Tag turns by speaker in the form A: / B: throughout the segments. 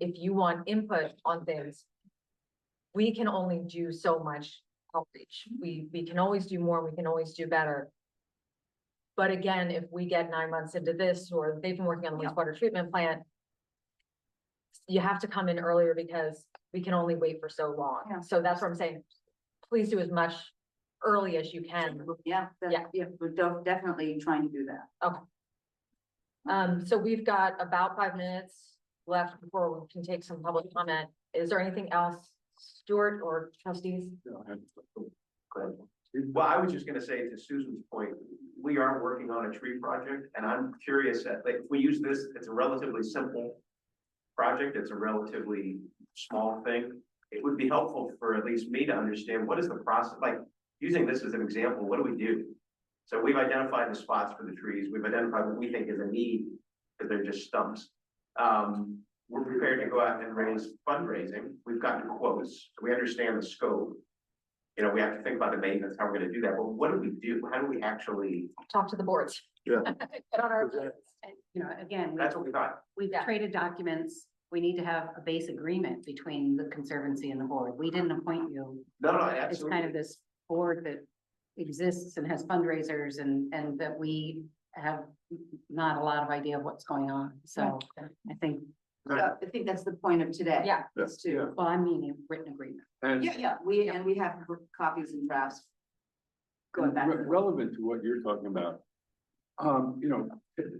A: if you want input on things, we can only do so much outreach. We, we can always do more, we can always do better. But again, if we get nine months into this, or they've been working on the
B: Yeah.
A: wastewater treatment plant, you have to come in earlier because we can only wait for so
B: Yeah.
A: long. So that's what I'm saying. Please do as much early as you can.
B: Yeah, that-
A: Yeah.
B: yeah, we're def- definitely trying to do that.
A: Um, so we've got about five minutes left before we can take some public comment. Is there anything else, Stuart or trustees?
C: Well, I was just gonna say to Susan's point, we are working on a tree project and I'm curious that, like, if we use this, it's a relatively simple project, it's a relatively small thing. It would be helpful for at least me to understand what is the process, like, using this as an example, what do we do? So we've identified the spots for the trees, we've identified what we think is a need, because they're just stumps. Um, we're prepared to go out and raise fundraising, we've gotten quotes, we understand the scope you know, we have to think about the maintenance, how we're gonna do that, but what do we do, how do we actually,
A: Talk to the boards.
D: Yeah.
A: Get on our,
B: And, you know, again, we-
C: that's what we thought.
B: we've
A: Yeah.
B: traded documents. We need to have a base agreement between the conservancy and the board. We didn't appoint you.
C: No, no,
B: It's kind of
C: absolutely,
B: this board that exists and has fundraisers and, and that we have not a lot of idea of what's going on. So I think.
D: Uh,
B: I think that's the point of today.
A: yeah,
D: is
B: to. Well, I mean, a written agreement.
D: And
B: yeah, we, and we have copies and drafts.
D: re- relevant to what you're talking about. Um, you know,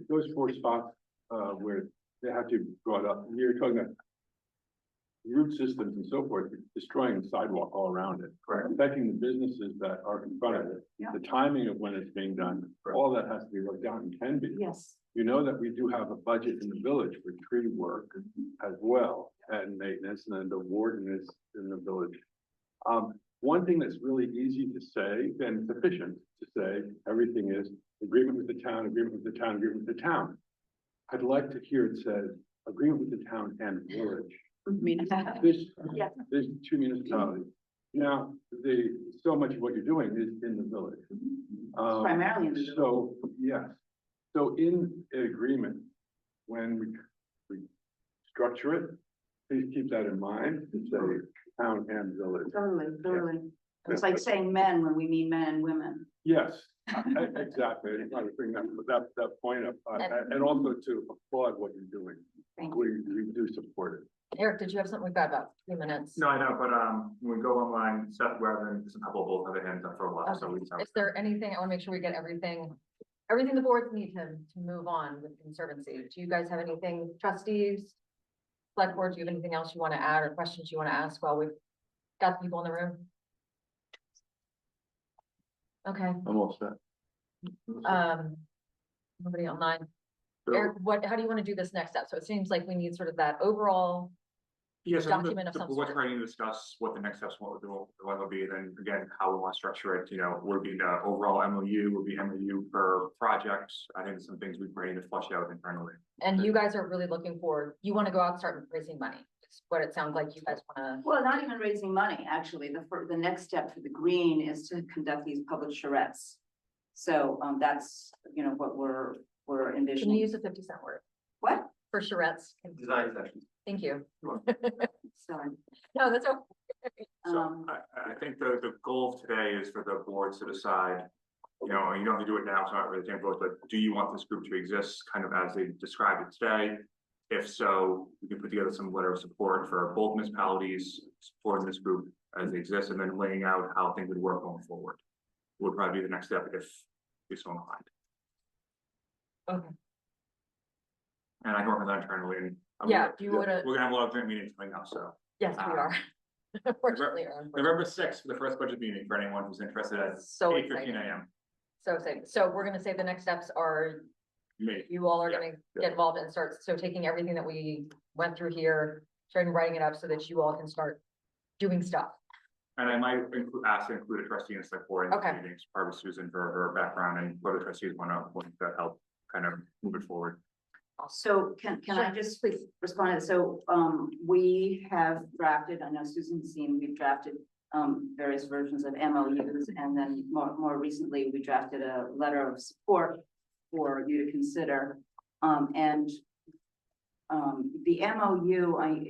D: those four spots, uh, where they have to be brought up, you're talking about. Root systems and so forth, destroying the sidewalk all around it,
C: correct,
D: affecting the businesses that are in front of it.
B: Yeah.
D: The timing of when it's being done, all that has to be worked out and can be.
B: Yes.
D: You know that we do have a budget in the village for tree work as well and maintenance and then the warden is in the village. Um, one thing that's really easy to say and sufficient to say, everything is agreement with the town, agreement with the town, agreement with the town. I'd like to hear it said, agreement with the town and village. There's,
B: Yeah.
D: there's two municipalities. Now, the, so much of what you're doing is in the village. Um,
B: Primarily in the village.
D: So, yes, so in agreement, when we, we structure it, please keep that in mind, it's a town and village.
B: Totally, totally. It's
D: Yeah.
B: like saying men when we mean men and women.
D: Yes, e- exactly, I was bringing that, that, that point up, uh, and- and also to applaud what you're doing.
B: Thank
D: We, we do support it.
A: Eric, did you have something? We've got about three minutes.
E: No, I know, but um, when we go online, Seth Webber, there's a couple of both have their hands up for a while, so we just. have-
A: Is there anything, I want to make sure we get everything, everything the boards need to, to move on with conservancy. Do you guys have anything, trustees? Select board, do you have anything else you want to add or questions you want to ask while we've got the people in the room? Okay,
D: I'm all set.
A: um, nobody online.
D: So-
A: Eric, what, how do you want to do this next step? So it seems like we need sort of that overall,
E: Yes, I think
A: document of
E: the- the
A: some
E: board's
A: sort.
E: ready to discuss what the next steps, what the, what will be, then again, how we want to structure it, you know, would be the overall MOU, would be MOU per project. I think some things we're ready to flush out internally.
A: and you guys are really looking for, you want to go out and start raising money. It's what it sounds like you guys want
B: Well, not even raising money, actually. The, fir- the next step for the green is to conduct these public charrettes. So, um, that's, you know, what we're, we're
A: to, can you
B: envisioning.
A: use a fifty cent word
B: What?
A: for charrettes?
C: design session.
A: Thank you.
B: Sorry.
A: No, that's okay.
E: So
B: Um,
E: I, I- I think the, the goal of today is for the boards to decide, you know, and you don't have to do it now, it's not really taking vote, but do you want this group to exist kind of as they described it today? If so, we can put together some letter of support for both municipalities supporting this group as they exist and then laying out how things would work going forward. Would probably be the next step if we so inclined.
A: Okay.
E: And I can work on that internally and. I mean,
A: Yeah, do you wanna-
E: We're gonna have a lot of joint meetings coming up, so.
A: Yes, we are. Unfortunately, or unfortunately.
E: November sixth for the first budget meeting for anyone who's interested at
A: so
E: eight fifteen
A: exciting.
E: AM.
A: So exciting. So we're gonna say the next steps are
E: Me.
A: you all are
E: Yeah,
A: gonna
E: yeah.
A: get involved and start, so taking everything that we went through here, starting writing it up so that you all can start doing stuff.
E: And I might include, ask to include a trustee in select board
A: Okay.
E: meetings, probably Susan for her background and what the trustees want to, want to help kind of move it forward.
B: so can, can I
A: Sure.
B: just please respond? So, um, we have drafted, I know Susan's seen, we've drafted, um, various versions of MOUs. And then more, more recently, we drafted a letter of support for you to consider. Um, and, um, the MOU, I,